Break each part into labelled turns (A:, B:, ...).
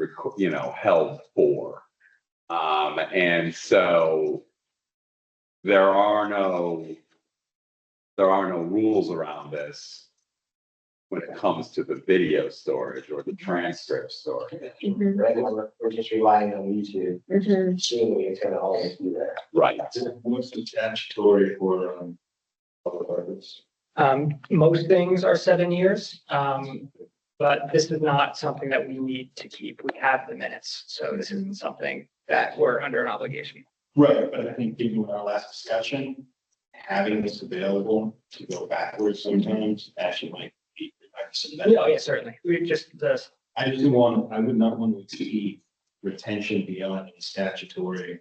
A: reco- you know, held for. Um, and so there are no, there are no rules around this when it comes to the video storage or the transcript storage.
B: Mhm,
C: Right now, we're, we're just relying on YouTube,
B: mhm.
C: assuming it's gonna always be there.
A: Right.
D: What's the statutory for, um, public records?
E: Um, most things are seven years, um, but this is not something that we need to keep. We have the minutes, so this isn't something that we're under an obligation.
D: Right, but I think given our last discussion, having this available to go backwards sometimes actually might be.
E: Oh, yeah, certainly. We just, the,
D: I just didn't want, I would not want to see retention beyond the statutory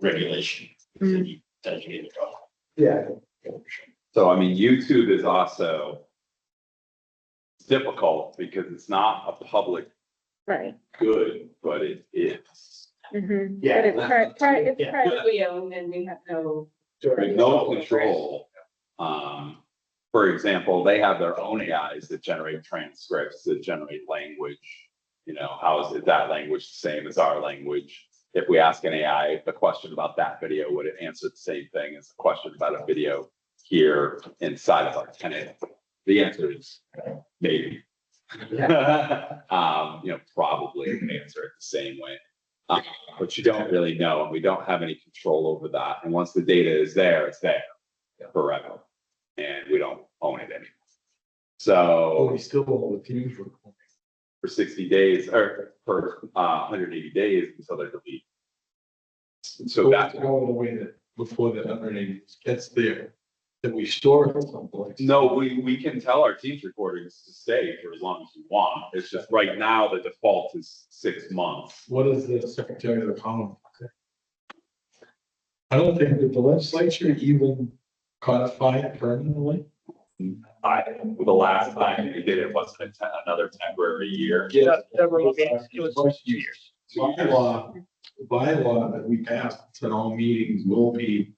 D: regulation that you designated.
C: Yeah.
A: So I mean, YouTube is also difficult because it's not a public
B: Right.
A: good, but it is.
B: mhm.
C: Yeah.
B: But it's pri- pri- it's
E: Yeah.
B: privately owned and we have no.
A: There's no control. Um, for example, they have their own AIs that generate transcripts, that generate language. You know, how is it that language the same as our language? If we ask an AI a question about that video, would it answer the same thing as a question about a video here inside of our tenant? The answer is maybe. Um, you know, probably answer it the same way. Uh, but you don't really know, and we don't have any control over that. And once the data is there, it's there forever. And we don't own it anymore. So
D: Oh, still hold the fuse recording.
A: for sixty days or for uh hundred eighty days until they're deleted. So that,
D: all the way that before the hundred eighty gets there, that we store it someplace.
A: no, we, we can tell our team's recordings to stay for as long as we want. It's just right now, the default is six months.
D: What is the Secretary of the Commonwealth? I don't think that the legislature even codified permanently.
A: I, the last time they did it wasn't a te- another temporary year.
E: Yeah, several meetings, it was two years.
D: Bylaw, bylaw that we passed, that all meetings will be,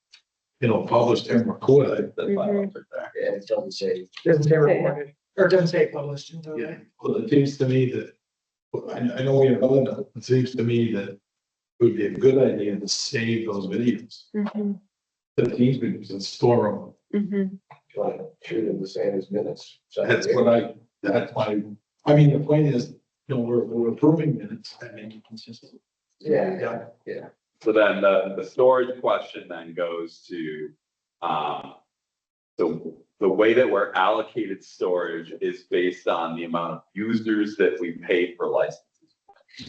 D: you know, published and recorded.
A: That's why I don't think that.
C: Yeah, it doesn't say.
E: Doesn't say recorded, or doesn't say published, does it?
D: Well, it seems to me that, well, I, I know we have other, notes. it seems to me that it would be a good idea to save those videos,
B: Mhm,
D: the teams videos and store them.
B: mhm.
C: Like, shoot in the same as minutes. So
D: That's what I, that's my, I mean, the point is, you know, we're, we're approving minutes that make it consistent.
C: Yeah,
A: So then the, the storage question then goes to, um, the, the way that we're allocated storage is based on the amount of users that we pay for licenses. I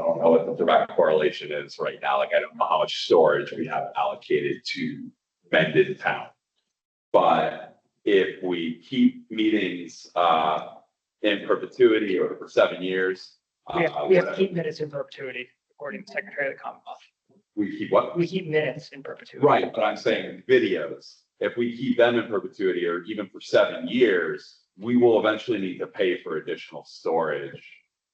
A: don't know what the direct correlation is right now, like I don't know how much storage we have allocated to Mendon Town. But if we keep meetings, uh, in perpetuity or for seven years.
E: We
A: uh,
E: have, we have to keep minutes in perpetuity, according to the Secretary of the Commonwealth.
A: We keep what?
E: We keep minutes in perpetuity.
A: Right, but I'm saying videos, if we keep them in perpetuity or even for seven years, we will eventually need to pay for additional storage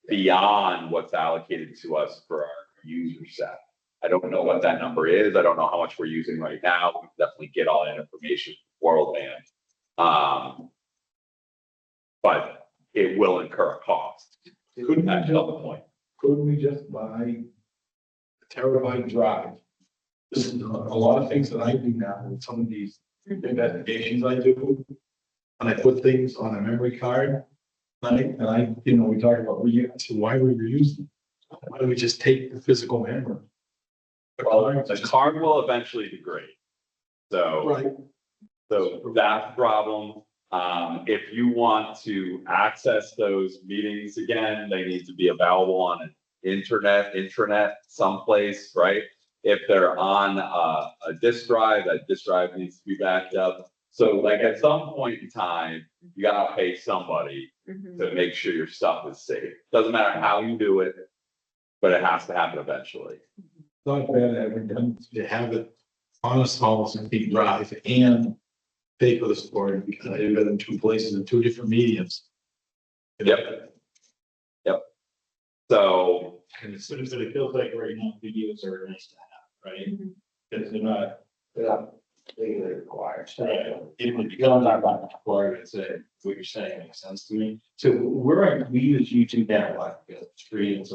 A: beyond what's allocated to us for our user set. I don't know what that number is. I don't know how much we're using right now. We can Definitely get all that information, from world band. Um. But it will incur a cost.
D: Couldn't
A: That's
D: we
A: the
D: just,
A: other point.
D: couldn't we just buy a terabyte drive? This is a a lot of things that I do now, with some of these investigations I do. And I put things on a memory card, and I, and I, you know, we talk about, reu- I said, why would we reuse them? Why don't we just take the physical memory?
A: Well, the card will eventually degrade. So.
D: Right,
A: So that problem, um, if you want to access those meetings again, they need to be available on an internet, intranet someplace, right? If they're on a, a disk drive, that disk drive needs to be backed up. So like at some point in time, you gotta pay somebody
B: mhm.
A: to make sure your stuff is safe. Doesn't matter how you do it, but it has to happen eventually.
D: not bad to have it done, to have it on a small CD drive and pay for the storage because I did it in two places in two different mediums.
A: Yep. So
D: And it's, but it feels like right now videos are nice to have, right?
B: Mhm.
D: Because they're not,
C: but I'm
F: legally required.
D: Right. It would become our bylaw requirement, so what you're saying makes sense to me. So where are we as you two now, like, uh, three and some